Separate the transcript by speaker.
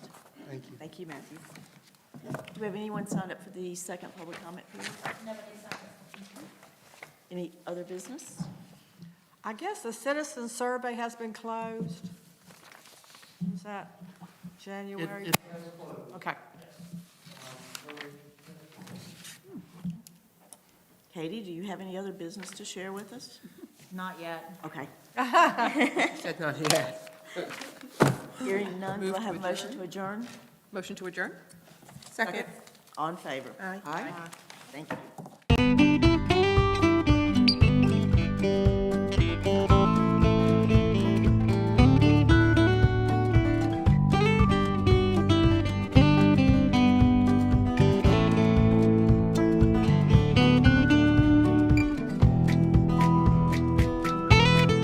Speaker 1: Thank you, Matthew. Do we have anyone signed up for the second public comment period? Any other business?
Speaker 2: I guess the citizen survey has been closed. Is that January?
Speaker 3: it-
Speaker 2: Okay.
Speaker 1: Katie, do you have any other business to share with us?
Speaker 4: Not yet.
Speaker 1: Okay.
Speaker 3: Said not yet.
Speaker 1: Hearing none, do
Speaker 3: Move
Speaker 1: I
Speaker 3: to
Speaker 1: have a motion to adjourn?
Speaker 3: Motion to adjourn? Second.
Speaker 1: On favor?
Speaker 3: Aye.
Speaker 1: Aye. Thank you.